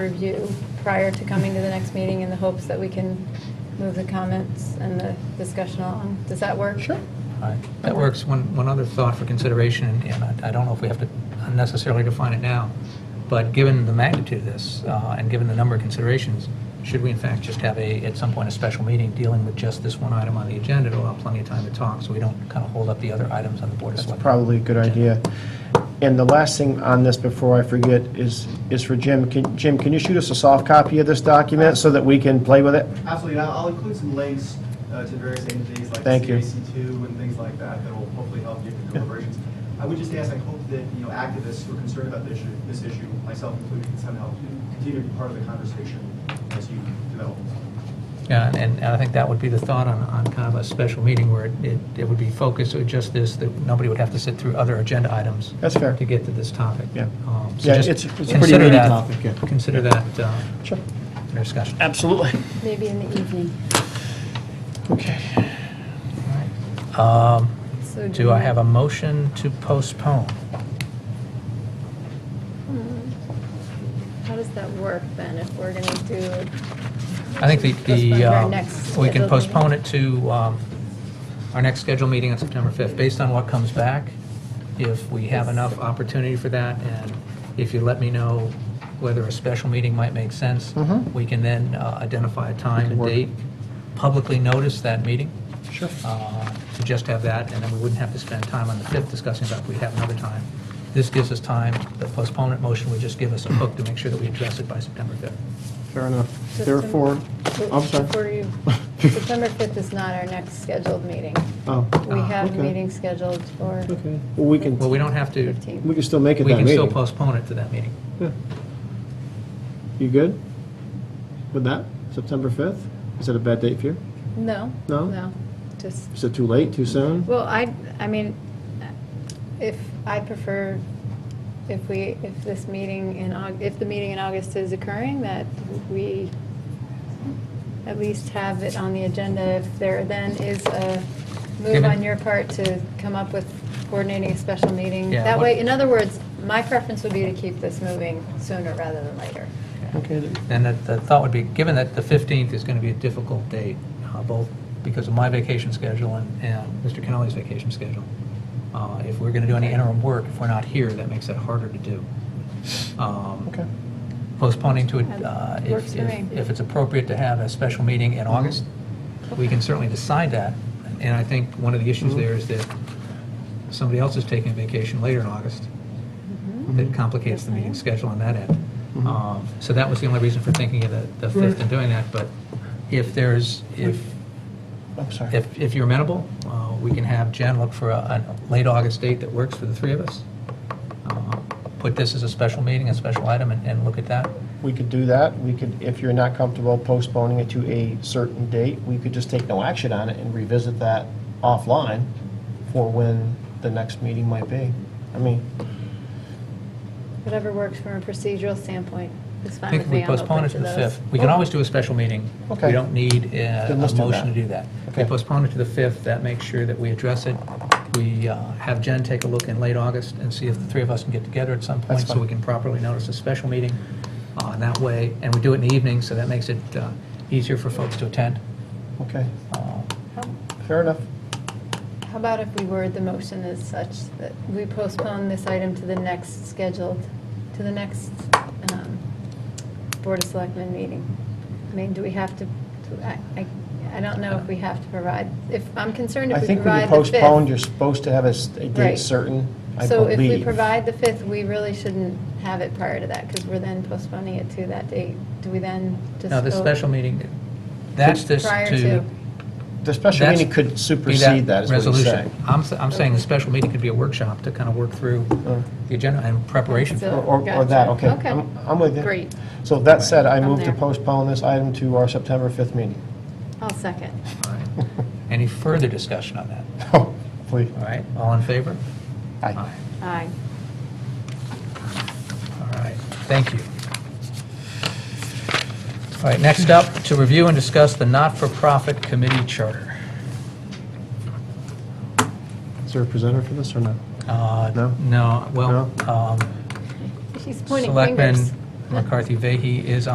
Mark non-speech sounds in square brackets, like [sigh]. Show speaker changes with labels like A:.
A: review prior to coming to the next meeting in the hopes that we can move the comments and the discussion along. Does that work? Sure.
B: That works. One, one other thought for consideration, and- and I- I don't know if we have to unnecessarily define it now, but given the magnitude of this, uh, and given the number of considerations, should we in fact just have a, at some point, a special meeting dealing with just this one item on the agenda to allow plenty of time to talk, so we don't kind of hold up the other items on the Board of
C: That's
B: Selectmen?
C: probably a good idea. And the last thing on this before I forget is, is for Jim. Can- Jim, can you shoot us a soft copy of this document so that we can play with it?
D: Absolutely, and I'll I'll include some links uh, to various entities like
C: Thank you.
D: CAC2 and things like that that will hopefully help you in your deliberations. I would just ask, I hope that, you know, activists who are concerned about this issue, this issue, myself included, can somehow continue to be part of the conversation as you develop.
B: Yeah, and- and I think that would be the thought on, on kind of a special meeting where it- it, it would be focused on just this, that nobody would have to sit through other agenda items.
C: That's fair.
B: To get to this topic.
C: Yeah.
B: Um, so
C: Yeah,
B: just
C: it's- it's a pretty
B: consider
C: meaty
B: that-
C: topic, yeah.
B: Consider that, uh,
C: Sure.
B: for discussion.
C: Absolutely.
A: Maybe in the evening.
C: Okay.
B: Um,
A: So
B: Do I have a motion to postpone?
A: How does that work then, if we're going to do,
B: I think the-
A: Postpone
B: the,
A: our
B: um,
A: next
B: we can
A: scheduled
B: postpone it to um, our next scheduled meeting on September 5th, based on what comes back, if we have enough opportunity for that, and if you let me know whether a special meeting might make sense,
A: Mm-hmm.
C: Mhm.
B: we can then uh, identify a time
C: can
B: and
C: work.
B: date, publicly notice that meeting,
C: Sure.
B: uh, to just have that, and then we wouldn't have to spend time on the 5th discussing that, we'd have another time. This gives us time, the postponement motion would just give us a hook to make sure that we address it by September 5th.
C: Fair enough.
A: September-
C: Therefore, I'm
A: Before
C: sorry.
A: you,
C: [laughs]
A: September 5th is not our next scheduled meeting.
C: Oh,
A: We
B: Ah,
A: have
C: okay.
A: meetings scheduled for
C: okay. Well, we can,
B: Well, we don't have to,
A: 15th.
C: we can still make it
B: we
C: that
B: can
C: meeting.
B: still postpone it to that meeting.
C: Yeah. You good with that? September 5th? Is that a bad date for you?
A: No.
C: No?
A: No, just,
C: Is it too late, too soon?
A: well, I, I mean, if, I prefer, if we, if this meeting in Aug, if the meeting in August is occurring, that we at least have it on the agenda. If there then is a move
B: Given-
A: on your part to come up with coordinating a special meeting.
B: Yeah,
A: That
B: what-
A: way, in other words, my preference would be to keep this moving sooner rather than later.
C: Okay, then.
B: And that the thought would be, given that the 15th is going to be a difficult date, uh, both because of my vacation schedule and, and Mr. Kennelly's vacation schedule, uh, if we're going to do any interim work, if we're not here, that makes it harder to do. Um,
C: Okay.
B: Postponing to, it, uh,
A: Works
B: if,
A: for me.
B: if if it's appropriate to have a special meeting in August, we can certainly decide that. And I think one of the issues there is that somebody else is taking vacation later in August. That complicates the meeting schedule on that end. Um, So that was the only reason for thinking of the- the 5th and doing that, but if there's, if,
C: I'm sorry.
B: if if you're amenable, uh, we can have Jen look for a a late August date that works for the three of us. Uh, Put this as a special meeting, a special item, and- and look at that.
C: We could do that. We could, if you're not comfortable postponing it to a certain date, we could just take no action on it and revisit that offline for when the next meeting might be. I mean,
A: Whatever works from a procedural standpoint is
B: I
A: fine
B: think
A: with
B: if we
A: me. I'm
B: postpone
A: open
B: it to the
A: those.
B: 5th, we can always do a special meeting. We
C: Okay.
B: don't need uh, a
C: Then let's do
B: motion to
C: that.
B: do that. If we
C: Okay.
B: postpone it to the 5th, that makes sure that we address it. We uh, have Jen take a look in late August and see if the three of us can get together at some point
C: That's
B: so
C: fine.
B: we can properly notice a special meeting uh, that way. And we do it in the evening, so that makes it uh, easier for folks to attend.
C: okay,
B: Uh,
A: Oh,
C: fair enough.
A: How about if we word the motion as such that we postpone this item to the next scheduled, to the next um, Board of Selectmen meeting? I mean, do we have to, to- I, I- I don't know if we have to provide, if, I'm concerned
C: I
A: if we
C: think when you
A: provide the 5th.
C: postpone, you're supposed to have a s- a
A: Right.
C: date certain, I believe.
A: So if we provide the 5th, we really shouldn't have it prior to that because we're then postponing it to that date. Do we then just go?
B: Now, this special meeting, that's this
A: Prior
B: to...
A: to.
C: The special
B: That's-
C: meeting
B: be
C: could supersede that, is what you're
B: resolution.
C: saying.
B: I'm, s- I'm saying the special meeting could be a workshop to kind of work through
C: Uh-huh.
B: the agenda and preparation for
A: So-
C: Or, or- or that, okay.
A: Gotcha. Okay.
C: I'm- I'm with you.
A: Great.
C: So that said, I
A: I'm
C: move to
A: there.
C: postpone this item to our September 5th meeting. [laughs]
A: I'll second.
B: All right. Any further discussion on that?
C: Oh, Please.
B: All right, all in favor?
C: Aye.
A: Aye.
B: All right, thank you. All right, next up, to review and discuss the not-for-profit committee charter.
C: Is there a presenter for this or no?
B: Uh,
C: No?
B: No, well, um,
A: She's pointing
B: Selectman
A: fingers. [laughs]
B: McCarthy Vehy is